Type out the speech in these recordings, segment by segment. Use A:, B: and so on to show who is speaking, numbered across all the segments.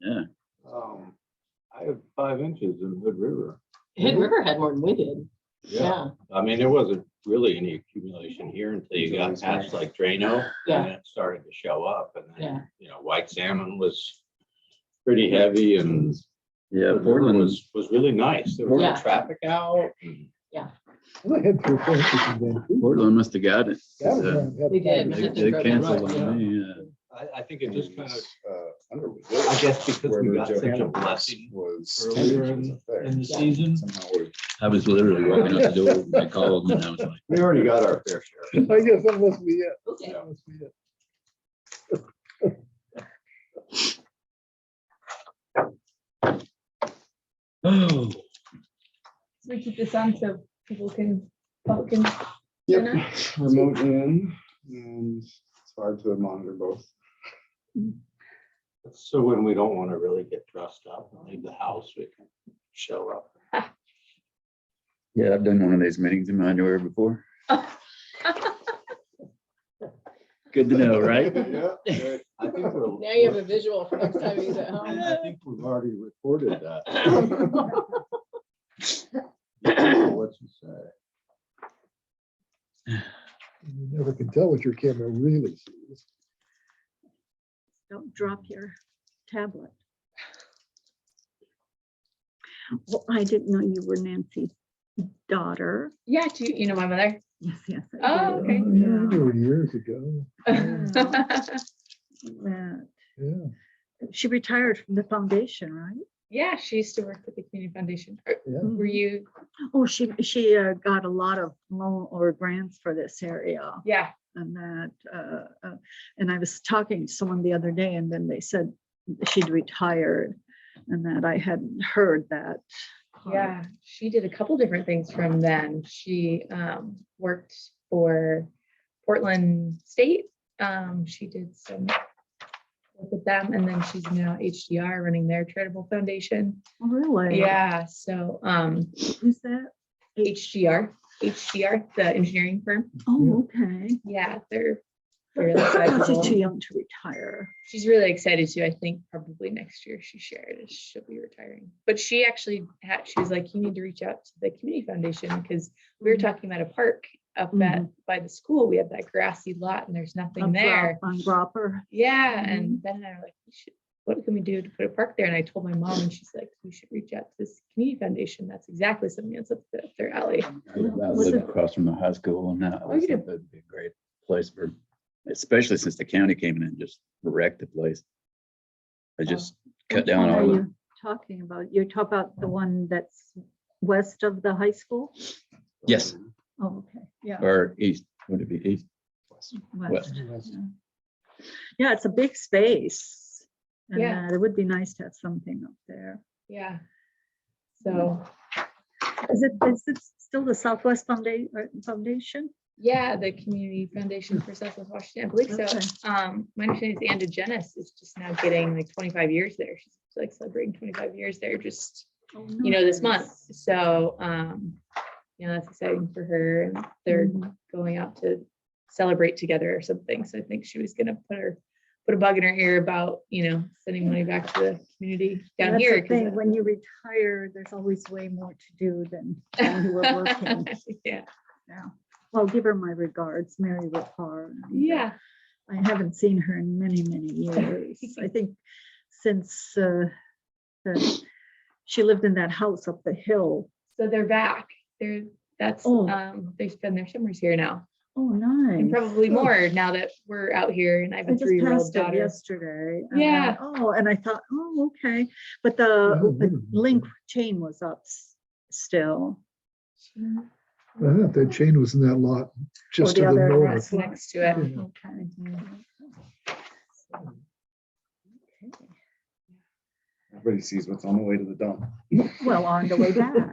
A: Yeah.
B: Um, I had five inches in Hood River.
C: Hidden River had more than we did. Yeah,
B: I mean, there wasn't really any accumulation here until you got past like Drano.
C: Yeah.
B: And it started to show up and
C: Yeah.
B: then, you know, white salmon was pretty heavy and
A: Yeah,
B: Hood River
A: Portland was,
B: Was, was really nice. There was
C: Yeah.
B: no traffic out. and-
D: I had three fences in Vancouver.
A: Portland must have got it. 'cause,
D: That
A: uh,
D: was when I had
C: We did.
D: five
A: They
D: inches.
A: they
C: Right,
A: canceled
B: yeah.
A: on me, yeah.
B: I, I think it just kind of,
E: uh, Underwood.
B: I guess because
E: Where
B: we
E: the
B: got such a
E: Johanna
B: blessing
E: Was.
B: earlier
E: 10
B: in,
E: inches up there.
B: in the season.
E: Somehow we-
A: I was literally walking out the door, when they called and I was like,
B: We already got our fair share.
D: I guess that must be it.
C: okay.
D: That must be it.
A: oh.
F: So we keep this on so people can, public can
E: Yep, remote in, and it's hard to monitor both.
B: So when we don't want to really get dressed up and leave the house, we can show up.
A: Yeah, I've done one of these meetings in Manuary before. Good to know, right?
E: Yeah.
B: I think we're.
C: Now you have a visual for next time he's at home.
B: I think we've already recorded that. What you say?
D: You never can tell what your camera really sees.
G: Don't drop your tablet. Well, I didn't know you were Nancy's daughter.
F: Yeah, do you, you know my mother?
G: Yes, yes. I
F: Oh,
G: do.
F: okay.
D: Oh, yeah, I knew her years ago.
G: Yeah.
D: Yeah,
G: She retired from the foundation, right?
F: Yeah, she used to work with the Community Foundation. Are-
D: yeah.
G: Mhm.
F: Were you,
G: Oh, she, she uh, got a lot of loan or grants for this area
F: yeah,
G: and that, uh, uh, and I was talking to someone the other day and then they said she'd retired and that I hadn't heard that. part.
F: yeah. She did a couple different things from then. She um, worked for Portland State. Um, She did some work with them and then she's now HDR running their charitable foundation.
G: Oh, Really?
F: Yeah, so um,
G: Who's that?
F: HDR, HDR, the engineering firm.
G: Oh, okay.
F: Yeah, they're they're really
G: She's too
F: sizable.
G: young to retire.
F: She's really excited too. I think probably next year she shared is she'll be retiring. But she actually had, she was like, you need to reach out to the community foundation because we were talking about a park up at,
G: Mhm.
F: by the school. We have that grassy lot and there's nothing
G: On Gro-
F: there.
G: On Gropper.
F: Yeah, and then I was like, we should, what can we do to put a park there? And I told my mom and she's like, we should reach out to this community foundation. That's exactly something that's up their- their alley.
A: I
G: Was
A: live
G: it-
A: across from the high school and that
F: Oh, you
A: was,
F: do.
A: that'd be a great place for, especially since the county came in and just wrecked the place. I just cut
G: Which
A: down
G: one
A: all
G: Oh. are
A: the,
G: you Talking about, you talk about the one that's west of the high school?
A: Yes.
G: Oh, okay, yeah.
A: or east, would it be east?
G: west,
D: West.
G: yeah. Yeah, it's a big space. And
F: Yeah.
G: uh, it would be nice to have something up there.
F: Yeah. So
G: Is it, is it still the Southwest Founda- or Foundation?
F: Yeah, the Community Foundation for Southwest Washington, I believe
G: Okay.
F: so. Um, my understanding is Anna Jenis is just now getting like twenty-five years there. She's like celebrating twenty-five years there just,
G: Oh,
F: you know, this month. So, um, you know, that's exciting for her and they're
G: Mm-hmm.
F: going out to celebrate together or something. So I think she was gonna put her, put a bug in her ear about, you know, sending money back to the community down
G: That's
F: here.
G: the
F: 'cause
G: thing,
F: that-
G: When you retire, there's always way more to do than when you were working.
F: Yeah,
G: Yeah. Well, give her my regards, Mary Whitcar.
F: yeah.
G: I haven't seen her in many, many years. I think since uh, the- she lived in that house up the hill.
F: So they're back. They're, that's,
G: Oh.
F: um, they spend their summers here now.
G: Oh,
F: And
G: nice.
F: probably more now that we're out here and I have
G: I
F: a
G: just
F: three-year-old
G: passed it
F: daughter.
G: yesterday. and I-
F: Yeah.
G: Oh, and I thought, oh, okay. But
D: Oh,
G: the
D: really?
G: the link chain was up s- still.
D: Uh-huh, That chain was in that lot, just to
G: the
D: the
G: other
D: north.
F: That's next to it.
D: Yeah.
G: Okay. Okay.
E: Everybody sees what's on the way to the dump.
G: Well, on the way back.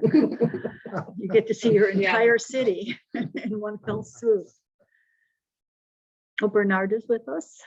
G: You get to see your
F: Yeah.
G: entire city in one fell swoop. Oh, Bernard is with us.